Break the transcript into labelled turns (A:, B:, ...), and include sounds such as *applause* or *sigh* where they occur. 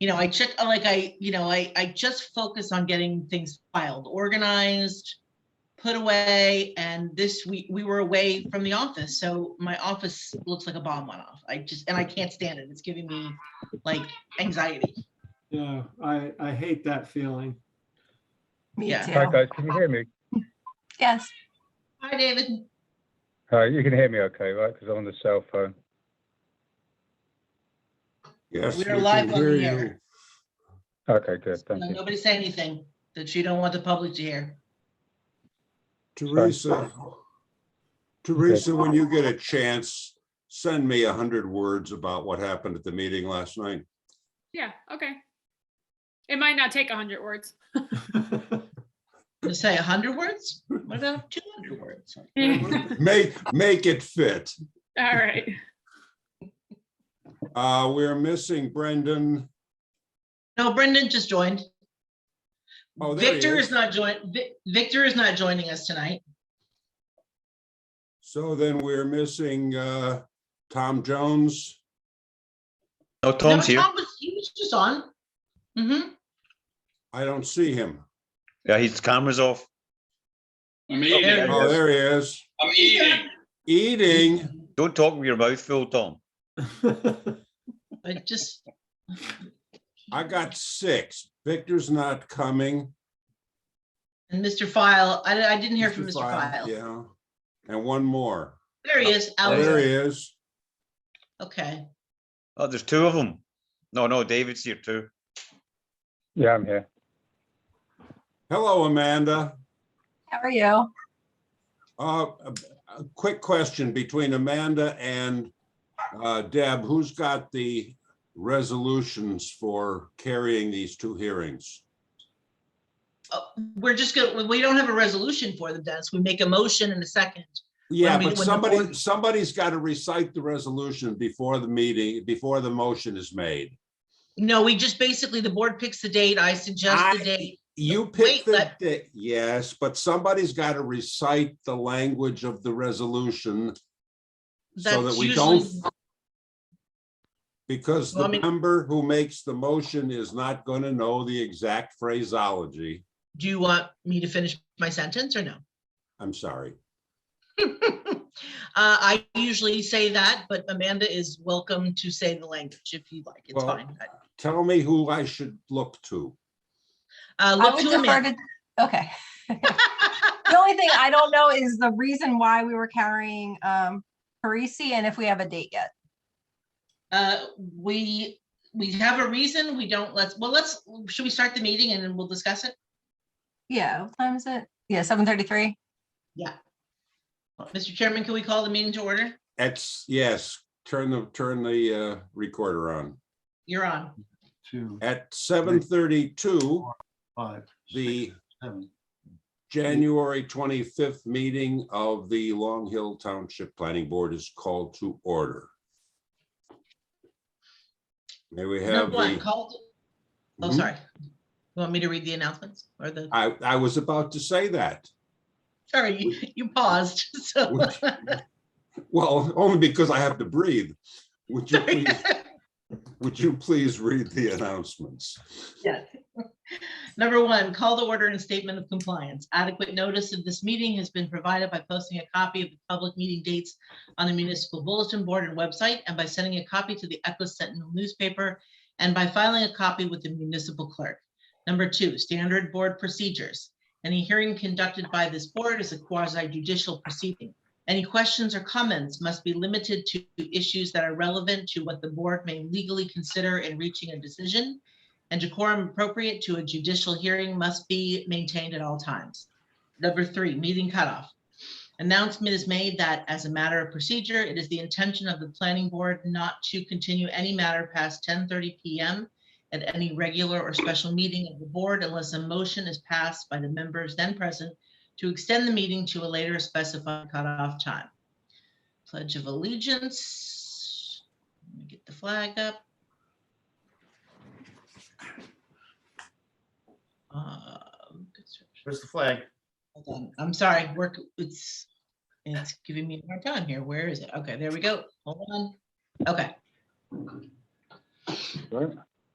A: you know, I check, uh, like I, you know, I, I just focus on getting things filed, organized, put away. And this week, we were away from the office. So my office looks like a bomb went off. I just, and I can't stand it. It's giving me like anxiety.
B: Yeah, I, I hate that feeling. *laughs*
C: Me
A: Yeah.
D: Hi,
C: too.
D: guys. Can you hear me?
C: Yes,
A: Hi, David.
D: Hi, you can hear me okay, right? Because I'm on the cell phone.
E: Yes.
A: We're
E: we can
A: live on
E: hear
A: the air.
E: you.
D: Okay, good. Thank
A: No,
D: you.
A: Nobody say anything that you don't want the public to hear.
E: Teresa, Teresa, when you get a chance, send me a hundred words about what happened at the meeting last night.
F: Yeah, okay. It might not take a hundred words.
A: To say a hundred words? What about two hundred words?
F: All
E: Make, make it fit.
F: right.
E: Uh, we're missing Brendan.
A: No, Brendan just joined.
E: Oh, there he
A: Victor
E: is.
A: is not join, Vic- Victor is not joining us tonight.
E: So then we're missing, uh, Tom Jones.
G: No, Oh, Tom's
A: No,
G: here.
A: Tom was- He was just on. Mm-hmm.
E: I don't see him.
G: Yeah, his camera's off.
H: I'm eating.
E: Oh, there he is.
H: I'm eating.
E: Eating.
G: Don't talk with your mouth full, Tom.
A: But just,
E: I got six. Victor's not coming.
A: and Mr. File, I, I didn't hear from Mr.
E: File,
A: File.
E: Yeah. And one more.
A: There he is,
E: Oh, There
A: Alex.
E: he is.
A: Okay.
G: Oh, there's two of them. No, no, David's here too.
D: Yeah, I'm here.
E: Hello, Amanda.
C: how are you?
E: Uh, A a quick question between Amanda and uh, Deb, who's got the resolutions for carrying these two hearings?
A: Oh, We're just gonna, we don't have a resolution for them, Dennis. We make a motion in a second.
E: Yeah,
A: we- when
E: but
A: the
E: somebody,
A: board-
E: somebody's got to recite the resolution before the meeting, before the motion is made.
A: No, we just basically, the board picks the date. I suggest
E: I-
A: the date.
E: You
A: Wait,
E: pick the,
A: let-
E: da- yes, but somebody's got to recite the language of the resolution so that
A: That's
E: we
A: usually-
E: don't. Because
A: Well,
E: the
A: I mean-
E: member who makes the motion is not going to know the exact phraseology.
A: Do you want me to finish my sentence or no? *laughs*
E: I'm sorry.
A: Uh, I usually say that, but Amanda is welcome to say the language if you like. It's
E: Well,
A: fine.
E: Tell me who I should look to.
A: Uh,
C: I
A: look
C: would
A: to
C: defer
A: Amanda.
C: to, okay.
A: *laughs*
C: The only thing I don't know is the reason why we were carrying um Parisi and if we have a date yet.
A: Uh, we, we have a reason. We don't, let's, well, let's, should we start the meeting and then we'll discuss it?
C: Yeah, what time is it? Yeah, seven thirty-three.
A: Mr. Chairman, can we call the meeting to order?
E: That's, yes, turn the, turn the uh, recorder on.
A: You're on.
B: Two,
E: At seven thirty-two,
B: five, six,
E: the
B: seven.
E: January twenty-fifth meeting of the Long Hill Township Planning Board is called to order. May we have
A: Number one,
E: the.
A: called, oh,
E: Mhm.
A: sorry. You Want me to read the announcements or the,
E: I, I was about to say that.
A: sorry, *laughs* you- you paused, so.
E: Would- Well, only because I have to breathe. Would you please, would you please read the announcements?
A: Yes. Number one, call the order and statement of compliance. Adequate notice of this meeting has been provided by posting a copy of the public meeting dates on the municipal bulletin board and website, and by sending a copy to the Eccles Sentinel newspaper, and by filing a copy with the municipal clerk. Number two, standard board procedures. Any hearing conducted by this board is a quasi judicial proceeding. Any questions or comments must be limited to issues that are relevant to what the board may legally consider in reaching a decision and decorum appropriate to a judicial hearing must be maintained at all times. Number three, meeting cutoff. Announcement is made that as a matter of procedure, it is the intention of the planning board not to continue any matter past 10:30 PM at any regular or special meeting of the board unless a motion is passed by the members then present to extend the meeting to a later specified cutoff time. Pledge of allegiance. Let me get the flag up. Um,
H: Where's the flag?
A: hold on, I'm sorry, work, it's, it's giving me a hard time here. Where is it? Okay, there we go. Hold on. Okay,
D: Right.